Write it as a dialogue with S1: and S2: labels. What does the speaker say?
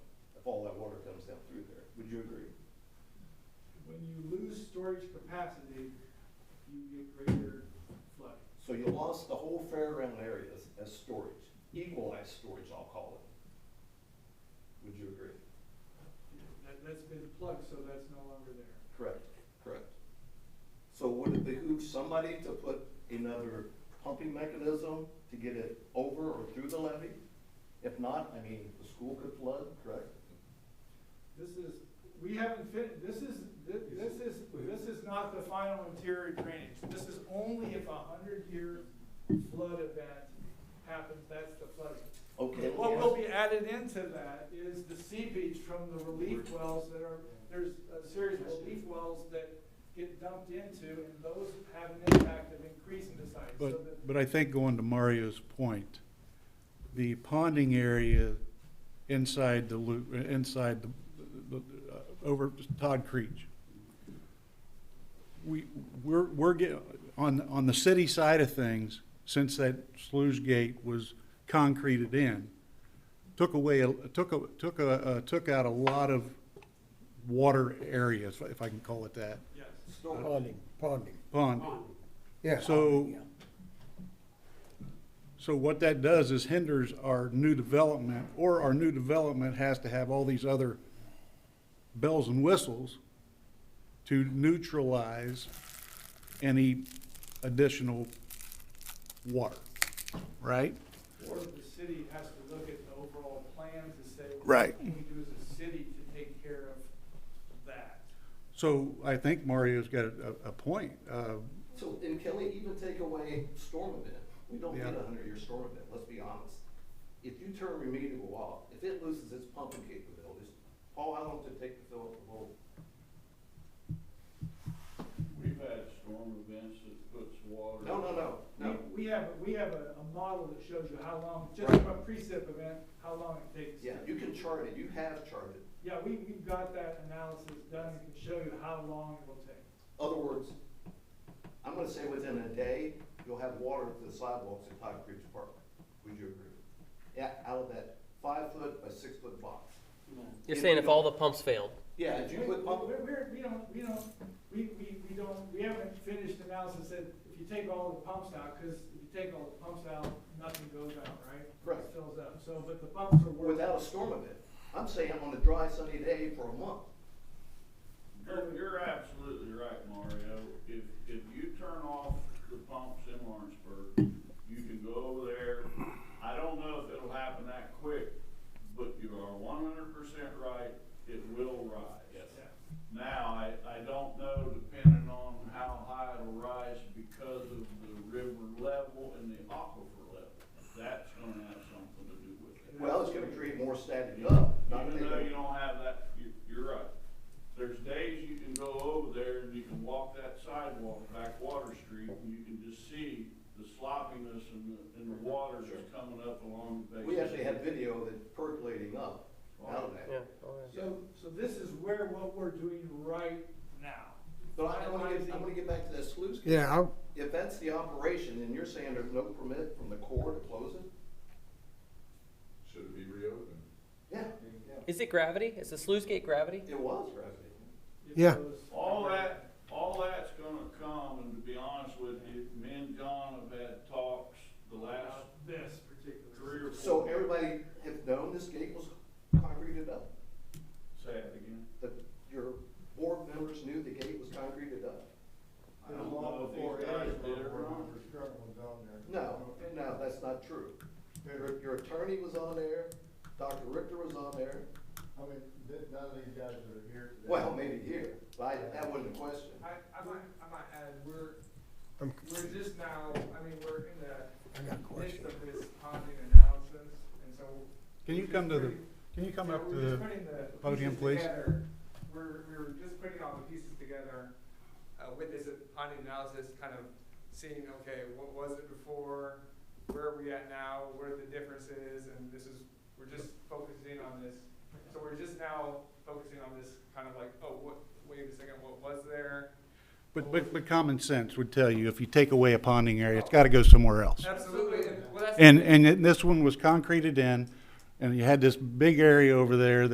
S1: water comes down through there. Would you agree?
S2: When you lose storage capacity, you get greater flooding.
S1: So you lost the whole fairground area as, as storage, equalized storage, I'll call it. Would you agree?
S2: That, that's been plugged, so that's no longer there.
S1: Correct, correct. So would it behoove somebody to put another pumping mechanism to get it over or through the levee? If not, I mean, the school could flood, correct?
S2: This is, we haven't fit, this is, thi- this is, this is not the final interior drainage. This is only if a hundred-year flood event happens, that's the flooding.
S1: Okay. let me
S2: What will
S1: ask-
S2: be added into that is the seepage from the relief wells that are, there's a series of relief wells that get dumped into, and those have an impact of increasing the size. So that
S3: But, but I think going to Mario's point, the ponding area inside the loop, inside the, the, the, uh, over Todd Creech. We, we're, we're getting, on, on the city side of things, since that sluice gate was concreted in, took away, a- took, a- took, a- uh, took out a lot of water areas, if I can call it that,
S2: Yes.
S1: Storage.
S4: Ponding, ponding,
S3: pond.
S4: yeah.
S3: So, so what that does is hinders our new development, or our new development has to have all these other bells and whistles to neutralize any additional water, right?
S2: Or the city has to look at the overall plan to say. well,
S3: Right.
S2: What can we do as a city to take care of that?
S3: So I think Mario's got a, a point. Uh,
S1: So, and can we even take away storm event? We don't need
S3: Yeah.
S1: a hundred year storm event, let's be honest. If you turn remedial off, if it loses its pumping capabilities, Paul, how long did it take to fill up the whole?
S5: We've had storm events that puts water.
S1: No, no, no, no.
S2: We we have, we have a, a model that shows you how long, just
S1: Right.
S2: from a precip event, how long it takes.
S1: Yeah, you can chart it, you have charted.
S2: Yeah, we, we've got that analysis done, and can show you how long it will take.
S1: Other words, I'm gonna say within a day, you'll have water to the sidewalks at Todd Creek Park. Would you agree? Yeah, out of that five foot by six foot box.
S6: You're saying if all the pumps failed?
S1: Yeah, if you
S2: We-
S1: put pump,
S2: We're, we're, we don't, we don't, we, we, we don't, we haven't finished analysis that if you take all the pumps out, because if you take all the pumps out, nothing goes out, right?
S1: Right.
S2: It Fills up, so, but the pumps are working.
S1: without a storm event, I'm saying on a dry sunny day for a month.
S5: You're, you're absolutely right, Mario. If, if you turn off the pumps in Lawrenceburg, you can go over there. I don't know if it'll happen that quick, but you are one hundred percent right. It will rise. Yes.
S2: Yeah.
S5: Now, I, I don't know depending on how high it'll rise because of the river level and the aquifer level. That's gonna have something to do with it.
S1: Well, it's gonna create more static up, not
S5: Even though you
S1: negative.
S5: don't have that, you, you're right. There's days you can go over there and you can walk that sidewalk back Water Street and you can just see the sloppiness and the, and the water that's coming up along the base.
S1: We actually have video that's percolating up out of
S6: Yeah.
S1: that.
S2: So, so this is where what we're doing right now.
S1: But I wanna get, I wanna get back to that sluice. gate.
S4: Yeah, I,
S1: If that's the operation, and you're saying there's no permit from the Corps to close it?
S7: Should it be reopened?
S1: Yeah,
S6: Is it gravity? Is the sluice gate gravity?
S1: it was, Rusty.
S2: It
S4: Yeah.
S2: goes-
S5: All that, all that's gonna come, and to be honest with you, me and John have had talks the last
S2: This particular.
S5: three or
S1: Uh, So
S5: four.
S1: everybody have known this gate was concreted up,
S5: Say it again.
S1: that your board members knew the gate was concreted up?
S5: I don't know if these guys did it or not.
S1: No, no, that's not true. Your, your attorney was on there, Dr. Richter was on there,
S8: I mean, th- none of these guys that are here today.
S1: well, maybe here, but I- that wasn't a question.
S9: I, I might, I might add, we're,
S4: I'm-
S9: we're just now, I mean, we're in the
S4: I got a
S9: midst
S4: question.
S9: of this ponding analysis, and so.
S3: Can you come to the, can you come
S9: so
S3: up to
S9: we're just
S3: the
S9: putting the
S3: podium,
S9: pieces
S3: please?
S9: together. We're, we're just putting all the pieces together, uh, with this ponding analysis, kind of seeing, okay, what was it before? Where are we at now? What are the differences? And this is, we're just focusing on this. So we're just now focusing on this kind of like, oh, what, wait a second, what was there?
S3: But, but, but common sense would tell you, if you take away a ponding area, it's gotta go somewhere else.
S9: Absolutely, and, well, that's.
S3: And, and it- this one was concreted in, and you had this big area over there